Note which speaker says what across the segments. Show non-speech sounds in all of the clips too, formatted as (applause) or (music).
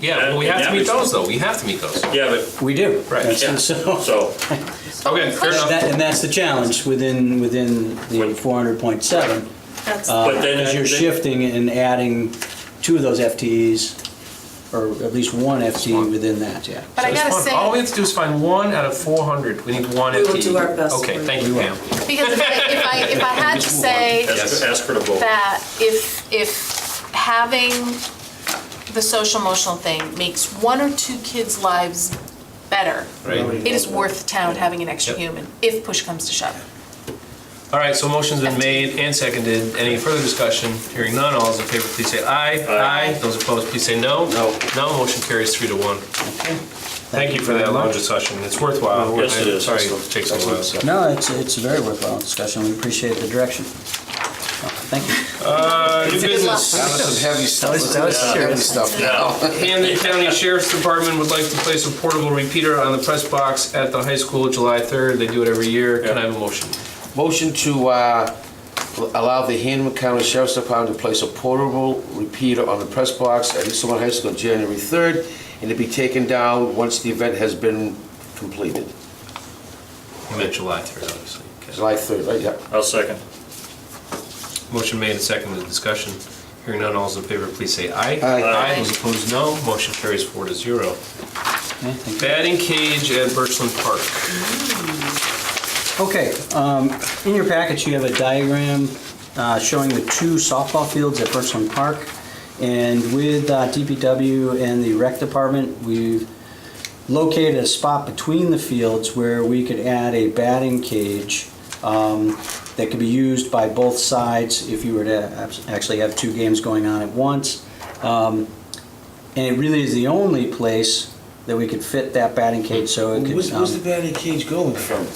Speaker 1: Yeah, well, we
Speaker 2: And
Speaker 1: have to
Speaker 2: that
Speaker 1: meet
Speaker 2: was-
Speaker 1: those though. We have to meet those.
Speaker 2: Yeah, but,
Speaker 3: We do.
Speaker 1: Right.
Speaker 3: That's-
Speaker 2: yeah,
Speaker 3: So,
Speaker 2: so,
Speaker 1: Okay, fair enough.
Speaker 3: that, and that's the challenge within, within the
Speaker 2: When-
Speaker 3: four hundred point seven.
Speaker 4: That's,
Speaker 2: but then.
Speaker 3: Because you're
Speaker 2: then-
Speaker 3: shifting and adding two of those FTEs, or at least one FTE within that, yeah.
Speaker 4: but I
Speaker 1: Just
Speaker 4: gotta
Speaker 1: (laughs) one- All we
Speaker 4: say,
Speaker 1: have to do is find one out of 400. We need one
Speaker 5: We will
Speaker 1: FTE.
Speaker 5: do our best
Speaker 1: Okay,
Speaker 5: for
Speaker 1: thank you, Pam.
Speaker 4: because if I, if I, if I had to say
Speaker 2: Ask ask her to vote.
Speaker 4: that if, if having the social emotional thing makes one or two kids' lives better,
Speaker 1: Right.
Speaker 4: it is worth the town having an extra
Speaker 1: Yep.
Speaker 4: human, if push comes to shove.
Speaker 1: All right, so motion's been made and seconded. Any further discussion? Hearing none, all those in favor, please say aye.
Speaker 2: Aye.
Speaker 1: Those opposed, please say no.
Speaker 3: No.
Speaker 1: No, motion carries three to one. Thank you for that lounge discussion. It's worthwhile.
Speaker 2: Yes, it is.
Speaker 1: Sorry, it takes a while. so.
Speaker 3: No, it's, it's a very worthwhile discussion, we appreciate the direction. Thank you.
Speaker 1: Uh, New business.
Speaker 4: luck.
Speaker 6: This is heavy stuff.
Speaker 3: That was- that was
Speaker 6: This is
Speaker 3: serious.
Speaker 6: heavy stuff now.
Speaker 2: Now,
Speaker 1: And the county sheriff's department would like to place a portable repeater on the press box at the high school July 3rd. They do it every year. Can I have a motion?
Speaker 6: Motion to uh, allow the Hanover County Sheriff's Department to place a portable repeater on the press box at East Long High School on January 3rd, and to be taken down once the event has been completed.
Speaker 1: I meant July 3rd, obviously. Okay.
Speaker 6: July 3rd, right, yeah.
Speaker 2: I'll second.
Speaker 1: Motion made and seconded, discussion. Hearing none, all those in favor, please say aye.
Speaker 6: Aye.
Speaker 1: Aye, those opposed, no. Motion carries four to zero.
Speaker 3: Yeah, thank you.
Speaker 1: Batting cage at Birchland Park.
Speaker 3: Okay, um, in your package, you have a diagram uh, showing the two softball fields at Birchland Park. And with uh, DPW and the rec department, we've located a spot between the fields where we could add a batting cage um, that could be used by both sides if you were to abs- actually have two games going on at once. Um, And it really is the only place that we could fit that batting cage, so it could.
Speaker 6: Where's
Speaker 3: um,
Speaker 6: where's the batting cage going from?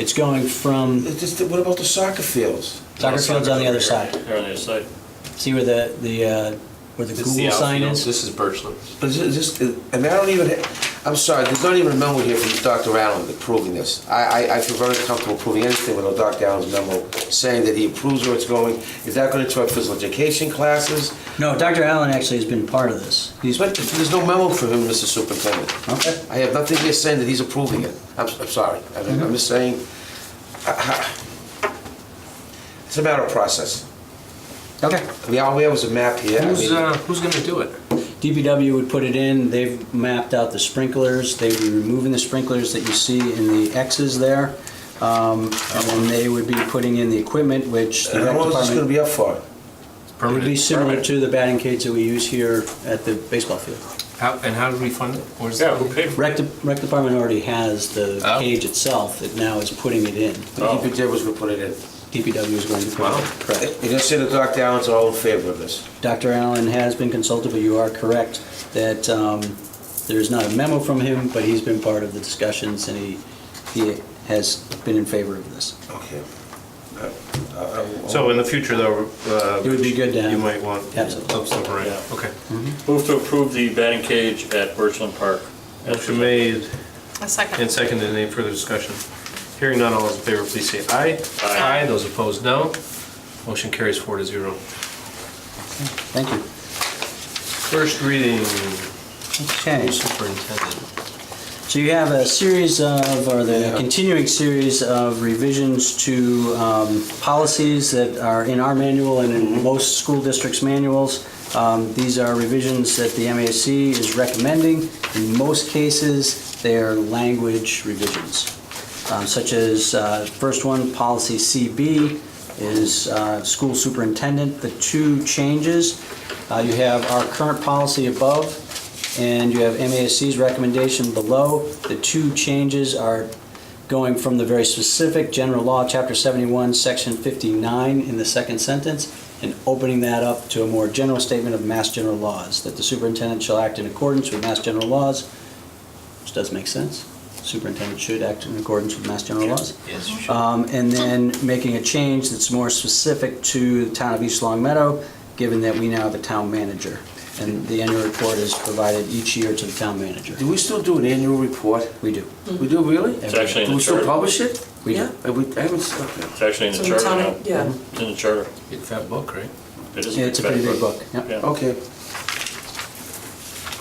Speaker 3: It's going from
Speaker 6: It's just, what about the soccer fields?
Speaker 3: Soccer field's on the other
Speaker 2: Soccer
Speaker 3: side.
Speaker 2: field. They're on the other side.
Speaker 3: See where the, the, uh, where the Google sign is?
Speaker 1: This is Birchland.
Speaker 6: But is it- is this, and I don't even, ha- I'm sorry, there's not even a memo here from Dr. Allen that proving this. I, I, I feel very comfortable proving anything without Dr. Allen's memo saying that he approves where it's going. Is that gonna interrupt physical education classes?
Speaker 3: No, Dr. Allen actually has been part of this.
Speaker 6: He's, but there's no memo for him, Mr. Superintendent.
Speaker 3: Okay.
Speaker 6: I have nothing here saying that he's approving it. I'm, I'm sorry, I mean,
Speaker 1: Mm-hmm.
Speaker 6: I'm just saying, uh, it's a matter of process.
Speaker 3: Okay.
Speaker 6: We, all we have is a map here. I
Speaker 1: Who's,
Speaker 6: mean-
Speaker 1: uh, who's gonna do it?
Speaker 3: DPW would put it in, they've mapped out the sprinklers, they'd be removing the sprinklers that you see in the X's there. Um, and then they would be putting in the equipment, which the
Speaker 6: And
Speaker 3: rec
Speaker 6: how long is Uh, this gonna
Speaker 3: department,
Speaker 6: be up for?
Speaker 3: would be similar
Speaker 1: Permanent.
Speaker 3: to the batting cage that we use here at the baseball field.
Speaker 1: How, and how do we fund it? Where's
Speaker 2: Yeah,
Speaker 1: that?
Speaker 2: who paid for
Speaker 3: Rec, de- rec department already has the
Speaker 1: Oh.
Speaker 3: cage itself, it now is putting it in.
Speaker 6: The DPJ was gonna put it in.
Speaker 3: DPW is going to put it
Speaker 1: Wow.
Speaker 3: in, correct.
Speaker 6: You just said that Dr. Allen's all in favor of this.
Speaker 3: Dr. Allen has been consulted, but you are correct that um, there's not a memo from him, but he's been part of the discussions and he, he has been in favor of this.
Speaker 6: Okay. Uh, uh, uh,
Speaker 1: So in the future though, uh.
Speaker 3: It would be good to have-
Speaker 1: You might want.
Speaker 3: Absolutely.
Speaker 1: Oh, so, right,
Speaker 2: Yeah.
Speaker 1: okay.
Speaker 2: Move to approve the batting cage at Birchland Park.
Speaker 1: Motion made
Speaker 4: A
Speaker 1: and
Speaker 4: second.
Speaker 1: seconded, any further discussion? Hearing none, all those in favor, please say aye.
Speaker 2: Aye.
Speaker 1: Those opposed, no. Motion carries four to zero.
Speaker 3: Thank you.
Speaker 1: First reading,
Speaker 3: Okay,
Speaker 1: superintendent.
Speaker 3: so you have a series of, or the
Speaker 6: Yeah.
Speaker 3: continuing series of revisions to um, policies that are in our manual and in most school districts' manuals. Um, These are revisions that the MASC is recommending. In most cases, they are language revisions. um, such as, uh, first one, policy CB is uh, school superintendent. The two changes, uh, you have our current policy above, and you have MASC's recommendation below. The two changes are going from the very specific general law, chapter 71, section 59, in the second sentence, and opening that up to a more general statement of mass general laws, that the superintendent shall act in accordance with mass general laws, which does make sense. Superintendent should act in accordance with mass general laws.
Speaker 1: Yes, you should.
Speaker 3: Um, and then making a change that's more specific to the town of East Long Meadow, given that we now have a town manager. And the annual report is provided each year to the town manager.
Speaker 6: Do we still do an annual report?
Speaker 3: We do.
Speaker 6: We do, really?
Speaker 2: It's actually in
Speaker 6: Do
Speaker 2: the
Speaker 6: we still
Speaker 2: charter.
Speaker 6: publish it?
Speaker 3: We do.
Speaker 6: Yeah, I would- I haven't, okay.
Speaker 2: It's actually in
Speaker 5: So
Speaker 2: the
Speaker 5: the
Speaker 2: charter now.
Speaker 5: town- yeah.
Speaker 2: It's in the charter.
Speaker 1: Big fat book, right?
Speaker 2: It is a
Speaker 3: It's a pretty big book, yep.
Speaker 2: Yeah.
Speaker 6: Okay,